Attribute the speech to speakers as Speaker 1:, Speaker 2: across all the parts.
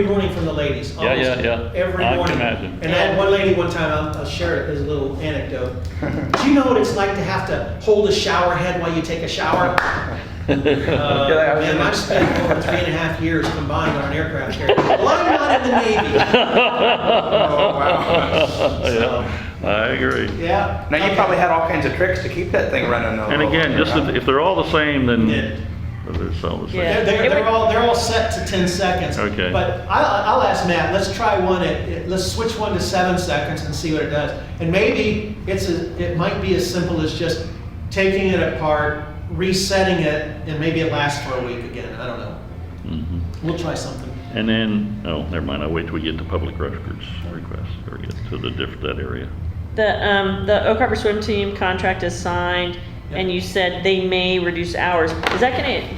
Speaker 1: Every morning from the ladies.
Speaker 2: Yeah, yeah,
Speaker 1: almost
Speaker 2: yeah.
Speaker 1: Every
Speaker 2: I can
Speaker 1: morning.
Speaker 2: imagine.
Speaker 1: And I had one lady one time, I'll, I'll share it as a little anecdote. Do you know what it's like to have to hold a shower head while you take a shower? Uh,
Speaker 2: Oh,
Speaker 3: Yeah, I was
Speaker 1: man,
Speaker 3: in-
Speaker 1: I've spent over three and a half years combined on an aircraft carrier. Well, I'm not in the Navy.
Speaker 3: Oh, wow.
Speaker 2: Yeah, I agree.
Speaker 1: Yeah.
Speaker 3: Now, you
Speaker 1: Okay.
Speaker 3: probably had all kinds of tricks to keep that thing running though.
Speaker 2: And again, just if, if they're all the same, then
Speaker 1: Yeah.
Speaker 2: they're all the
Speaker 1: They're,
Speaker 2: same.
Speaker 4: Yeah.
Speaker 1: they're, they're all, they're all set to 10 seconds.
Speaker 2: Okay.
Speaker 1: But I'll, I'll ask Matt, let's try one at- at, let's switch one to seven seconds and see what it does. And maybe it's, a- it might be as simple as just taking it apart, resetting it, and maybe it lasts for a week again. I don't know.
Speaker 2: Mhm.
Speaker 1: We'll try something.
Speaker 2: And then, oh, never mind, I'll wait till we get to public records requests or get to the diff, that area.
Speaker 4: The, um, the Oak Harbor Swim Team contract is signed, and you said they may reduce hours. Is that gonna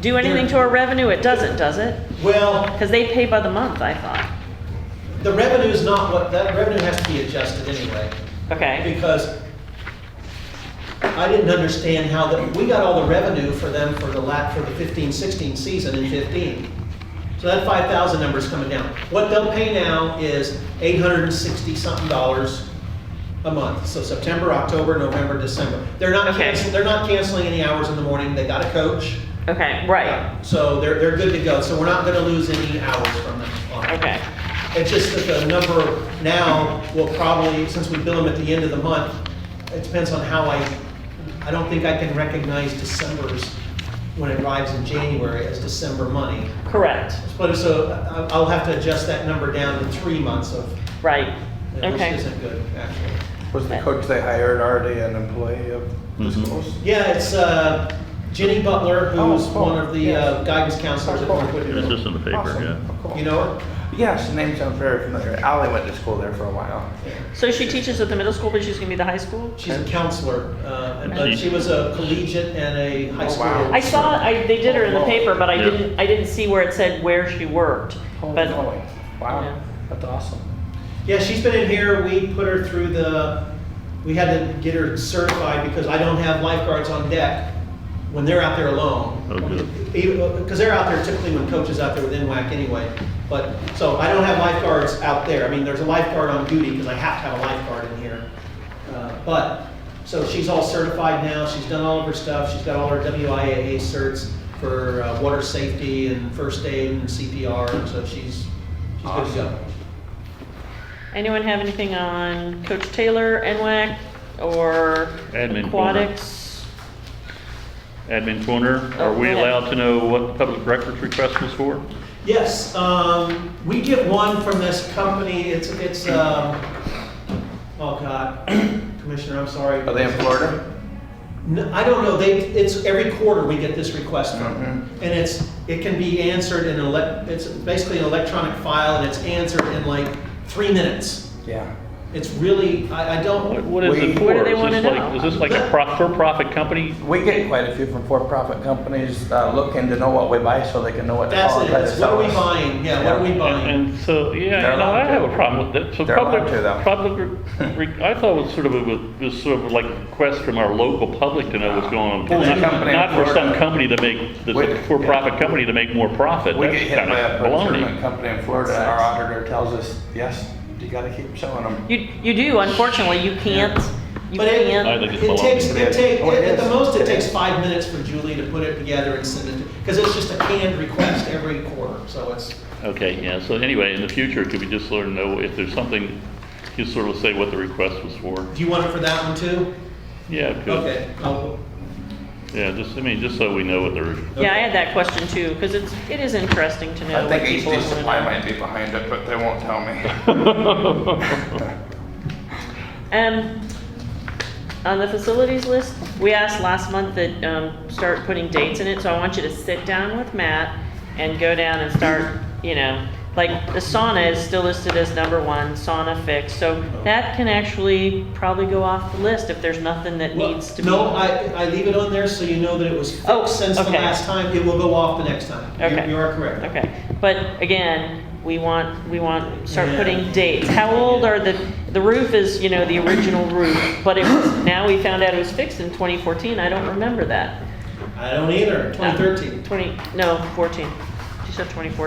Speaker 4: do anything to our revenue? It doesn't, does it?
Speaker 1: Well,
Speaker 4: Because they pay by the month, I thought.
Speaker 1: the revenue is not what, that revenue has to be adjusted anyway.
Speaker 4: Okay,
Speaker 1: Because I didn't understand how that, we got all the revenue for them for the lat, for the 15, 16 season in 15. So that 5,000 number's coming down. What they'll pay now is 860 something dollars a month. So September, October, November, December. They're not
Speaker 4: Okay.
Speaker 1: canceling, they're not canceling any hours in the morning. They got a coach.
Speaker 4: okay, right,
Speaker 1: So they're, they're good to go. So we're not gonna lose any hours from them on it.
Speaker 4: okay,
Speaker 1: It's just that the number now will probably, since we bill them at the end of the month, it depends on how I, I don't think I can recognize December's, when it arrives in January, as December money.
Speaker 4: correct,
Speaker 1: But so I- I'll have to adjust that number down to three months of,
Speaker 4: right,
Speaker 1: which
Speaker 4: okay.
Speaker 1: isn't good, actually.
Speaker 3: Was the coach they hired already an employee of the
Speaker 2: Mhm.
Speaker 3: schools?
Speaker 1: Yeah, it's uh, Jenny Butler, who's
Speaker 3: Oh, cool.
Speaker 1: one of the uh, guidance counselors at
Speaker 3: Oh, cool.
Speaker 1: Northwood.
Speaker 2: It's just in the paper,
Speaker 3: Awesome.
Speaker 2: yeah.
Speaker 3: Oh, cool.
Speaker 1: You know her?
Speaker 3: Yes, the name sounds very familiar. Ally went to school there for a while.
Speaker 4: So she teaches at the middle school, but she's gonna be the high school?
Speaker 1: She's a counselor, uh,
Speaker 2: And
Speaker 1: but
Speaker 2: she-
Speaker 1: she was a collegiate and a high
Speaker 3: Oh,
Speaker 1: school.
Speaker 3: wow.
Speaker 4: I saw, I, they did her in the paper, but I
Speaker 2: Yeah.
Speaker 4: didn't, I didn't see where it said where she worked.
Speaker 3: Holy
Speaker 4: But
Speaker 3: moly.
Speaker 4: Yeah.
Speaker 3: Wow, that's awesome.
Speaker 1: Yeah, she's been in here, we put her through the, we had to get her certified because I don't have lifeguards on deck when they're out there alone.
Speaker 2: Oh, good.
Speaker 1: Because they're out there typically when coach is out there with NWAC anyway. But, so I don't have lifeguards out there. I mean, there's a lifeguard on duty because I have to have a lifeguard in here. Uh, But, so she's all certified now, she's done all of her stuff, she's got all her WIAA certs for uh, water safety and first aid and CPR, and so she's, she's good to go.
Speaker 4: Anyone have anything on Coach Taylor, NWAC, or
Speaker 2: Admin corner.
Speaker 4: aquatics?
Speaker 2: Admin corner, are
Speaker 4: Oh,
Speaker 2: we
Speaker 4: yeah.
Speaker 2: allowed to know what the public records request was for?
Speaker 1: Yes, um, we get one from this company, it's, it's, um, oh God, Commissioner, I'm sorry.
Speaker 3: Are they in Florida?
Speaker 1: No, I don't know, they, it's, every quarter we get this request from.
Speaker 3: Mhm.
Speaker 1: And it's, it can be answered in, elec- it's basically an electronic file and it's answered in like three minutes.
Speaker 3: Yeah.
Speaker 1: It's really, I, I
Speaker 2: What,
Speaker 1: don't,
Speaker 2: what is it
Speaker 3: We-
Speaker 2: for?
Speaker 4: What do they
Speaker 2: Is this
Speaker 4: wanna
Speaker 2: like-
Speaker 4: know?
Speaker 2: Is this like a prof- for-profit company?
Speaker 3: We get quite a few from for-profit companies uh, looking to know what we buy so they can know what to
Speaker 1: that's
Speaker 3: call
Speaker 1: it,
Speaker 3: and
Speaker 2: Oh,
Speaker 3: try to
Speaker 1: it's what
Speaker 3: sell
Speaker 1: are we
Speaker 3: us.
Speaker 1: buying, yeah, what are we
Speaker 3: Yeah.
Speaker 1: buying?
Speaker 2: And so, yeah,
Speaker 3: They're
Speaker 2: you know, I
Speaker 3: allowed to.
Speaker 2: have a problem with that. So
Speaker 3: They're
Speaker 2: public,
Speaker 3: allowed to, though.
Speaker 2: public, re- I thought it was sort of a, was sort of like a request from our local public to know what's going on.
Speaker 3: There's a
Speaker 2: Not-
Speaker 3: company in
Speaker 2: Not for some
Speaker 3: Florida.
Speaker 2: company to make, that's
Speaker 3: We-
Speaker 2: a for-profit company to make more profit.
Speaker 3: We
Speaker 2: That's
Speaker 3: get hit
Speaker 2: kinda
Speaker 3: by a procurement
Speaker 2: baloney.
Speaker 3: company in Florida and our auditor tells us, yes, you gotta keep selling them.
Speaker 4: You, you do, unfortunately, you can't, you
Speaker 1: But it-
Speaker 2: I
Speaker 4: can't.
Speaker 2: think it's
Speaker 1: It takes,
Speaker 2: baloney.
Speaker 1: it take,
Speaker 3: Oh, it
Speaker 1: at the
Speaker 3: is.
Speaker 1: most, it
Speaker 3: It
Speaker 1: takes
Speaker 3: is.
Speaker 1: five minutes for Julie to put it together and send it, because it's just a canned request every quarter, so it's,
Speaker 2: Okay, yeah, so anyway, in the future, could we just sort of know if there's something, just sort of say what the request was for?
Speaker 1: do you want it for that one too?
Speaker 2: Yeah, it could.
Speaker 1: Okay, I'll-
Speaker 2: Yeah, just, I mean, just so we know what they're,
Speaker 4: Yeah, I had that question too, because it's, it is interesting to know
Speaker 3: I
Speaker 4: what
Speaker 3: think
Speaker 4: people
Speaker 3: HD
Speaker 4: are doing.
Speaker 3: Supply might be behind it, but they won't tell me.
Speaker 4: Um, on the facilities list, we asked last month that, um, start putting dates in it, so I want you to sit down with Matt and go down and start, you know, like, the sauna is still listed as number one, sauna fix,
Speaker 1: Oh.
Speaker 4: so that can actually probably go off the list if there's nothing that
Speaker 1: Well,
Speaker 4: needs to be.
Speaker 1: No, I, I leave it on there so you know that it was
Speaker 4: Oh,
Speaker 1: fixed since the
Speaker 4: okay.
Speaker 1: last time, it will go off the next time. You-
Speaker 4: Okay.
Speaker 1: You are correct.
Speaker 4: Okay, but again, we want, we want, start
Speaker 1: Yeah.
Speaker 4: putting dates. How old are the, the roof is, you know, the original roof, but it was, now we found out it was fixed in 2014, I don't remember that.
Speaker 1: I don't either, 2013.
Speaker 4: Twenty, no, fourteen. She said twenty fourteen.